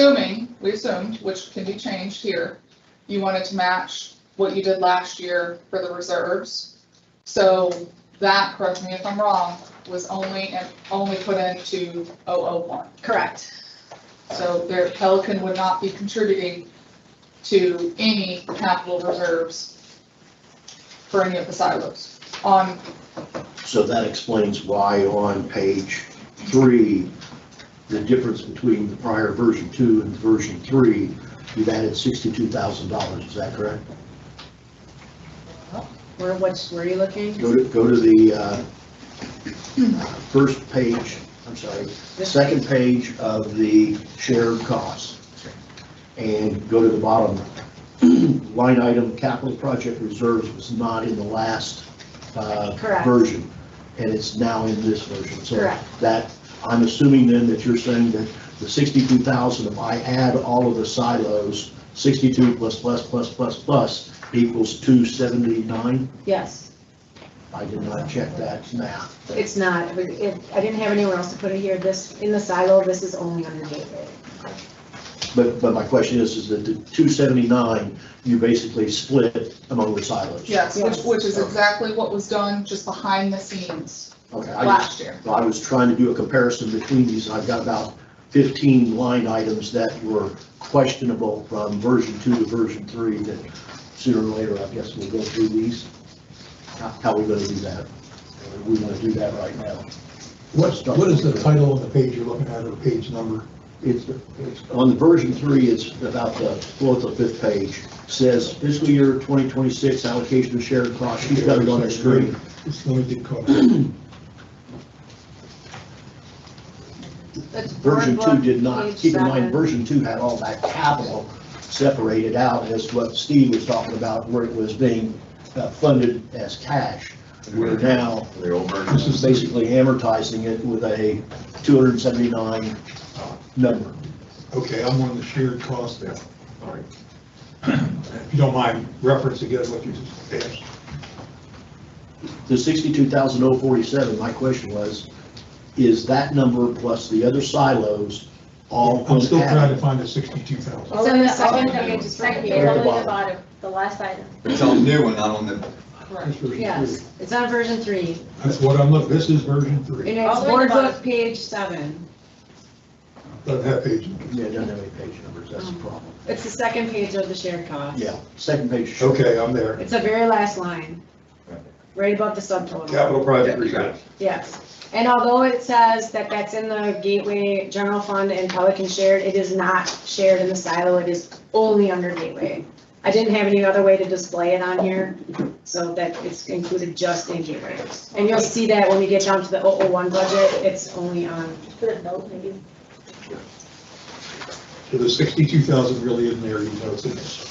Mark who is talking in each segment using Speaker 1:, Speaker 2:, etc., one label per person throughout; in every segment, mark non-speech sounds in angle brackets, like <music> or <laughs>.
Speaker 1: assuming, we assumed, which can be changed here, you wanted to match what you did last year for the reserves. So that, correct me if I'm wrong, was only, and only put into 001.
Speaker 2: Correct.
Speaker 1: So their Pelican would not be contributing to any capital reserves for any of the silos. On,
Speaker 3: So that explains why on page three, the difference between the prior version two and version three, you've added sixty-two thousand dollars, is that correct?
Speaker 2: Where, what's, where are you looking?
Speaker 3: Go to, go to the, uh, <clears throat> first page, I'm sorry,
Speaker 2: This
Speaker 3: second page of the shared costs. And go to the bottom, <clears throat> line item, capital project reserves was not in the last, uh,
Speaker 2: Correct.
Speaker 3: version. And it's now in this version, so.
Speaker 2: Correct.
Speaker 3: That, I'm assuming then that you're saying that the sixty-two thousand, if I add all of the silos, sixty-two plus, plus, plus, plus, plus equals two seventy-nine?
Speaker 2: Yes,
Speaker 3: I did not check that math.
Speaker 2: it's not, it- it- I didn't have anywhere else to put it here, this, in the silo, this is only under David.
Speaker 3: But, but my question is, is that the two seventy-nine, you basically split among the silos?
Speaker 1: yes, which,
Speaker 2: Yes.
Speaker 1: which is exactly what was done just behind the scenes
Speaker 3: Okay, I
Speaker 1: last
Speaker 3: just,
Speaker 1: year.
Speaker 3: I was trying to do a comparison between these, and I've got about fifteen line items that were questionable from version two to version three, that sooner or later, I guess we'll go through these. How, how we gonna do that? Or We wanna do that right now.
Speaker 4: What's, what is the title of the page you're looking at or page number?
Speaker 3: It's, it's- on the version three, it's about the fourth or fifth page, says fiscal year twenty twenty-six allocation of shared costs, she's got it on her screen.
Speaker 4: It's limited cost.
Speaker 2: That's
Speaker 3: Version
Speaker 2: board
Speaker 3: two
Speaker 2: book,
Speaker 3: did not,
Speaker 2: page
Speaker 3: keep in
Speaker 2: seven.
Speaker 3: mind, version two had all that capital separated out as what Steve was talking about, where it was being uh, funded as cash. We're now,
Speaker 5: The old version.
Speaker 3: this is basically amortizing it with a two hundred and seventy-nine uh, number.
Speaker 4: <clears throat> Okay, I'm on the shared cost now. All right. <clears throat> If you don't mind, reference again what you just asked.
Speaker 3: The sixty-two thousand oh forty-seven, my question was, is that number plus the other silos all?
Speaker 4: I'm still trying to
Speaker 3: unadded?
Speaker 4: find the 62,000.
Speaker 6: It's on the second,
Speaker 5: Oh,
Speaker 6: page,
Speaker 1: just
Speaker 6: second,
Speaker 1: right
Speaker 6: page,
Speaker 4: here.
Speaker 6: only the bottom, the last item.
Speaker 5: It's on new and not on the,
Speaker 4: That's version three.
Speaker 2: Yes, it's on version three,
Speaker 4: That's what I'm looking, this is version
Speaker 2: and
Speaker 4: three.
Speaker 2: it's
Speaker 6: All the way
Speaker 2: board
Speaker 6: to the
Speaker 2: book,
Speaker 6: bottom.
Speaker 2: page seven.
Speaker 4: Doesn't have page numbers.
Speaker 3: Yeah, it doesn't have any page numbers,
Speaker 6: Um,
Speaker 3: that's the problem.
Speaker 2: It's the second page of the shared cost.
Speaker 3: Yeah, second page.
Speaker 4: Okay, I'm there.
Speaker 2: It's the very last line, right above the subtotal.
Speaker 4: Capital project reserve.
Speaker 2: Yes, and although it says that that's in the Gateway General Fund and Pelican Shared, it is not shared in the silo, it is only under Gateway. I didn't have any other way to display it on here, so that it's included just in Gateway. And you'll see that when we get down to the 001 budget, it's only on,
Speaker 6: Put a note maybe.
Speaker 4: So the 62,000 really isn't there, you know, it's in this.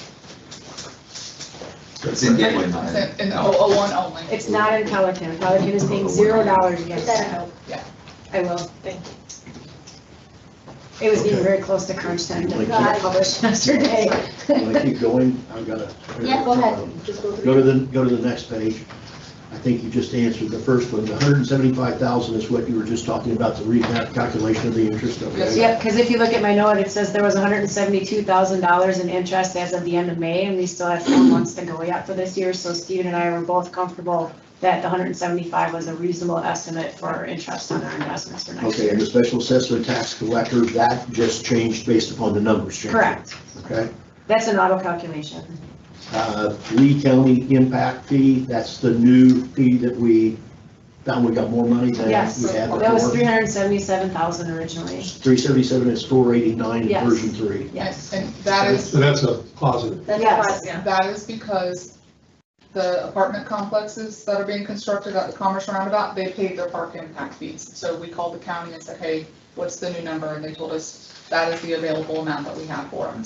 Speaker 5: it's in Gateway, not in-
Speaker 1: It's In 001 only.
Speaker 2: it's not in Pelican, Pelican is paying zero dollars
Speaker 6: Put
Speaker 2: against
Speaker 6: that a
Speaker 2: that.
Speaker 6: note.
Speaker 2: I will,
Speaker 6: Thank
Speaker 2: it was getting very close to crunch time, that
Speaker 3: Like
Speaker 2: got
Speaker 3: that.
Speaker 2: published <laughs> yesterday.
Speaker 3: When I keep going, I've got to.
Speaker 6: you. Yeah, go ahead, just go
Speaker 3: Go
Speaker 6: through.
Speaker 3: to the, go to the next page. I think you just answered the first one. The hundred and seventy-five thousand is what you were just talking about, the recap calculation of the interest,
Speaker 1: Yes,
Speaker 3: okay?
Speaker 2: Yep, because if you look at my note, it says there was hundred and seventy-two thousand dollars in interest as of the end of May, and we still have four months to go yet for this year, so Steven and I were both comfortable that the hundred and seventy-five was a reasonable estimate for our interest on our investments for next
Speaker 3: Okay,
Speaker 2: year.
Speaker 3: and the special assessment tax collector, that just changed based upon the numbers changing.
Speaker 2: Correct,
Speaker 3: Okay?
Speaker 2: that's an auto calculation.
Speaker 3: Uh, Lee County impact fee, that's the new fee that we found we got more money than we had
Speaker 2: Yes,
Speaker 3: before.
Speaker 2: that was three hundred and seventy-seven thousand originally,
Speaker 3: Three seventy-seven is four eighty-nine in
Speaker 2: Yes.
Speaker 3: version three.
Speaker 2: yes.
Speaker 1: And that is
Speaker 4: So that's a positive.
Speaker 6: That's
Speaker 2: Yes.
Speaker 6: fine, yeah.
Speaker 1: That is because the apartment complexes that are being constructed at the Commerce Roundabout, they paid their park impact fees. So we called the county and said, hey, what's the new number? And they told us that is the available amount that we have for them,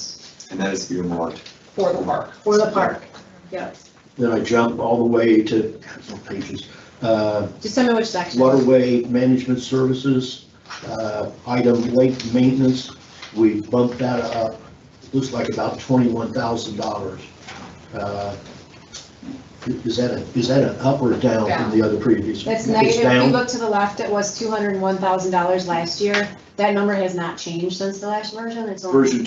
Speaker 5: and that is being marked.
Speaker 1: for the park.
Speaker 2: For the park, yep.
Speaker 3: Then I jump all the way to, what pages? Uh,
Speaker 2: Just tell me which section.
Speaker 3: Waterway Management Services, uh, item lake maintenance, we bumped that up, looks like about twenty-one thousand dollars. Uh, Is that a, is that an up or a down from the other previous?
Speaker 2: That's
Speaker 3: It's
Speaker 2: negative, if you
Speaker 3: down?
Speaker 2: look to the left, it was two hundred and one thousand dollars last year, That number has not changed since the last version, it's only.
Speaker 3: Version